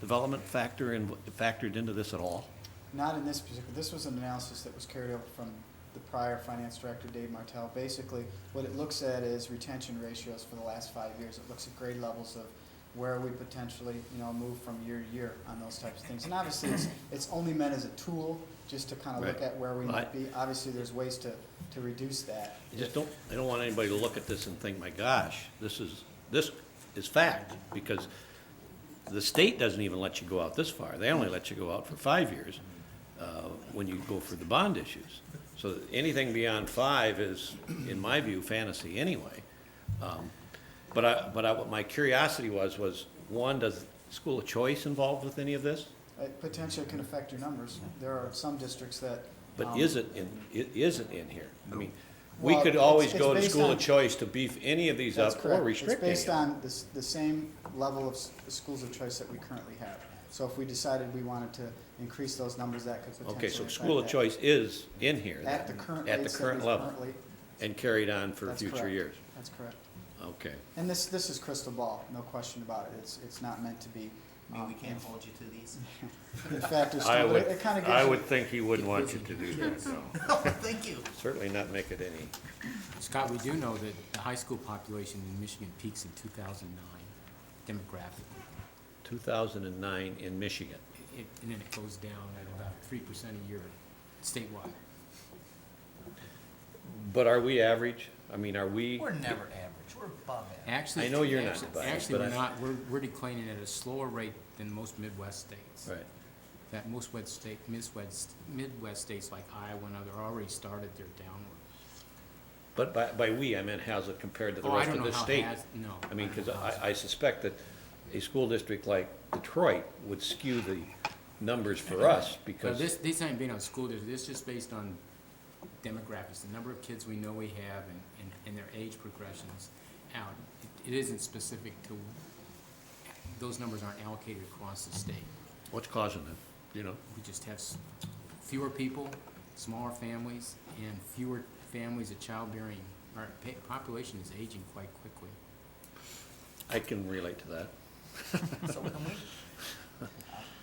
development factor in, factored into this at all? Not in this particular, this was an analysis that was carried over from the prior finance director, Dave Martell. Basically, what it looks at is retention ratios for the last five years. It looks at grade levels of where we potentially, you know, move from year to year on those types of things. And obviously, it's, it's only meant as a tool, just to kind of look Right. at where we Well, I- might be. Obviously, there's ways to, to reduce that. I just don't, I don't want anybody to look at this and think, my gosh, this is, this is fact, because the state doesn't even let you go out this far. They only let you go out for five years, uh, when you go for the bond issues. So anything beyond five is, in my view, fantasy anyway. Um, But I, but I, what my curiosity was, was, one, does school of choice involved with any of this? It potentially can affect your numbers. There are some districts that. But um, is it in, it isn't in here? I mean, we Well, could it's- always it's go to based school on- of choice to beef any of these That's up or correct. restrict any It's of based them. on the, s- the same level of s- schools of choice that we currently have. So if we decided we wanted to increase those numbers, that could potentially Okay, so affect school of that. choice is in here then? At the current at the rates that current we've level, currently- And carried on for that's future correct. years? That's correct. Okay. And this, this is crystal ball, no question about it. It's, it's not meant to be. I mean, we um, can't hold you to these. In fact, it's, I still- would, it kind of gives you. I would think he wouldn't want you to do that, so. Oh, thank you. Certainly not make it any, Scott, we do know that the high school population in Michigan peaks in 2009 demographically, 2009 in Michigan. It- and then it goes down at about 3% a year statewide. But are we average? I mean, are we? We're never average. We're above average. Actually, I know you're not actu- biased, Actually, but we're I- not, we're we're declining at a slower rate than most Midwest states. Right. That most West state, Midwest, Midwest states like Iowa and other already started their downward. But by, by we, I meant how's it compared to the Oh, I rest don't of know the how state? Has- No. I mean, don't because know how I, I suspect that a school district like Detroit would skew the numbers for us So because, this, this ain't being on school district, this is just based on demographics, the number of kids we know we have and, and, and their age progressions out. It- It isn't specific to, those numbers aren't allocated across the state. what's causing it, you know? We just have s- fewer people, smaller families, and fewer families of childbearing. Our pa- population is aging quite quickly. I can relate to that. So can we, uh,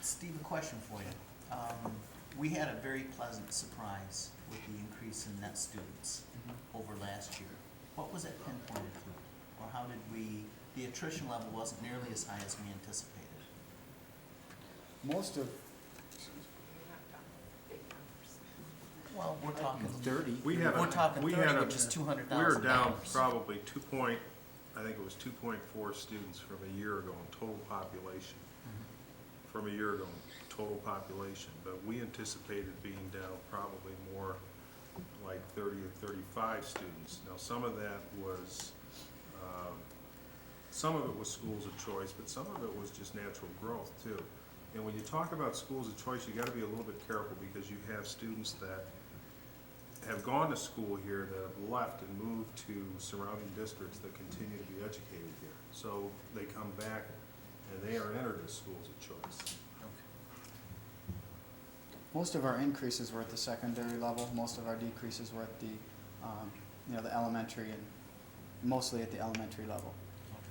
Steve, a question for you. Um, we had a very pleasant surprise with the increase in net students Mm-hmm. over last year. What was that pinpointed to? Or how did we, the attrition level wasn't nearly as high as we anticipated. Most of, Well, we're talking, Thirty. We had we're a- talking we had thirty, a- which is two hundred We were thousand down dollars. probably two point, I think it was two point four students from a year ago in total population. Mm-hmm. From a year ago in total population, but we anticipated being down probably more like thirty or thirty-five students. Now, some of that was, um, some of it was schools of choice, but some of it was just natural growth too. And when you talk about schools of choice, you gotta be a little bit careful because you have students that have gone to school here that have left and moved to surrounding districts that continue to be educated here. So they come back and they are entered as schools of choice. most of our increases were at the secondary level, most of our decreases were at the, um, you know, the elementary and mostly at the elementary level.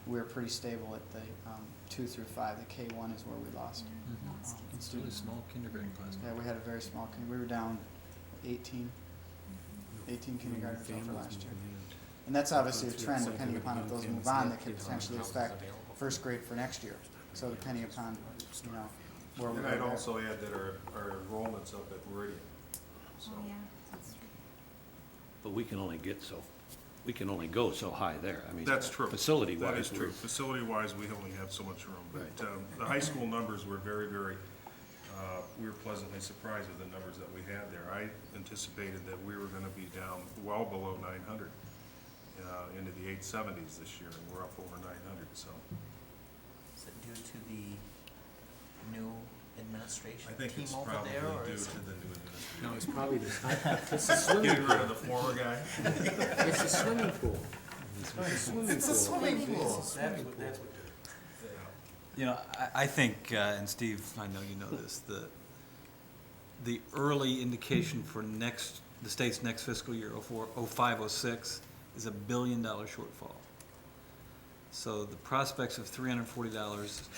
we're pretty stable at the um, two through five. The K one is where we lost. um, in It's really students. small kindergarten class. Yeah, we had a very small. kin- We were down 18, 18 kindergartners over Families last year, moving in. and that's obviously a Those trend. kids Depending are upon if doing those move families, on, yeah, that could kids aren't potentially houses affect available. first grade for next year. So depending upon you know where we And go I'd there. also add that our, our enrollment's up at Meridian, so. But we can only get so, we can only go so high there. I mean, That's true. Facility wise. That is true. Facility-wise, we only have so much room, but, um, the high school numbers were very, very, uh, we were pleasantly surprised with the numbers that we had there. I anticipated that we were gonna be down well below nine hundred, uh, into the eight seventies this year, and we're up over nine hundred, so. Is it due to the new administration I think team it's over probably there, or due is it? to the new administration. No, it's probably the, it's the swimming, Getting rid of the former guy. it's the swimming pool. It's a swimming pool. That's what, that's what. You know, I, I think, uh, and Steve, I know you know this, the, the early indication for next, the state's next fiscal year, oh four, oh five, oh six, is a billion dollar shortfall. So the prospects of three hundred and forty dollars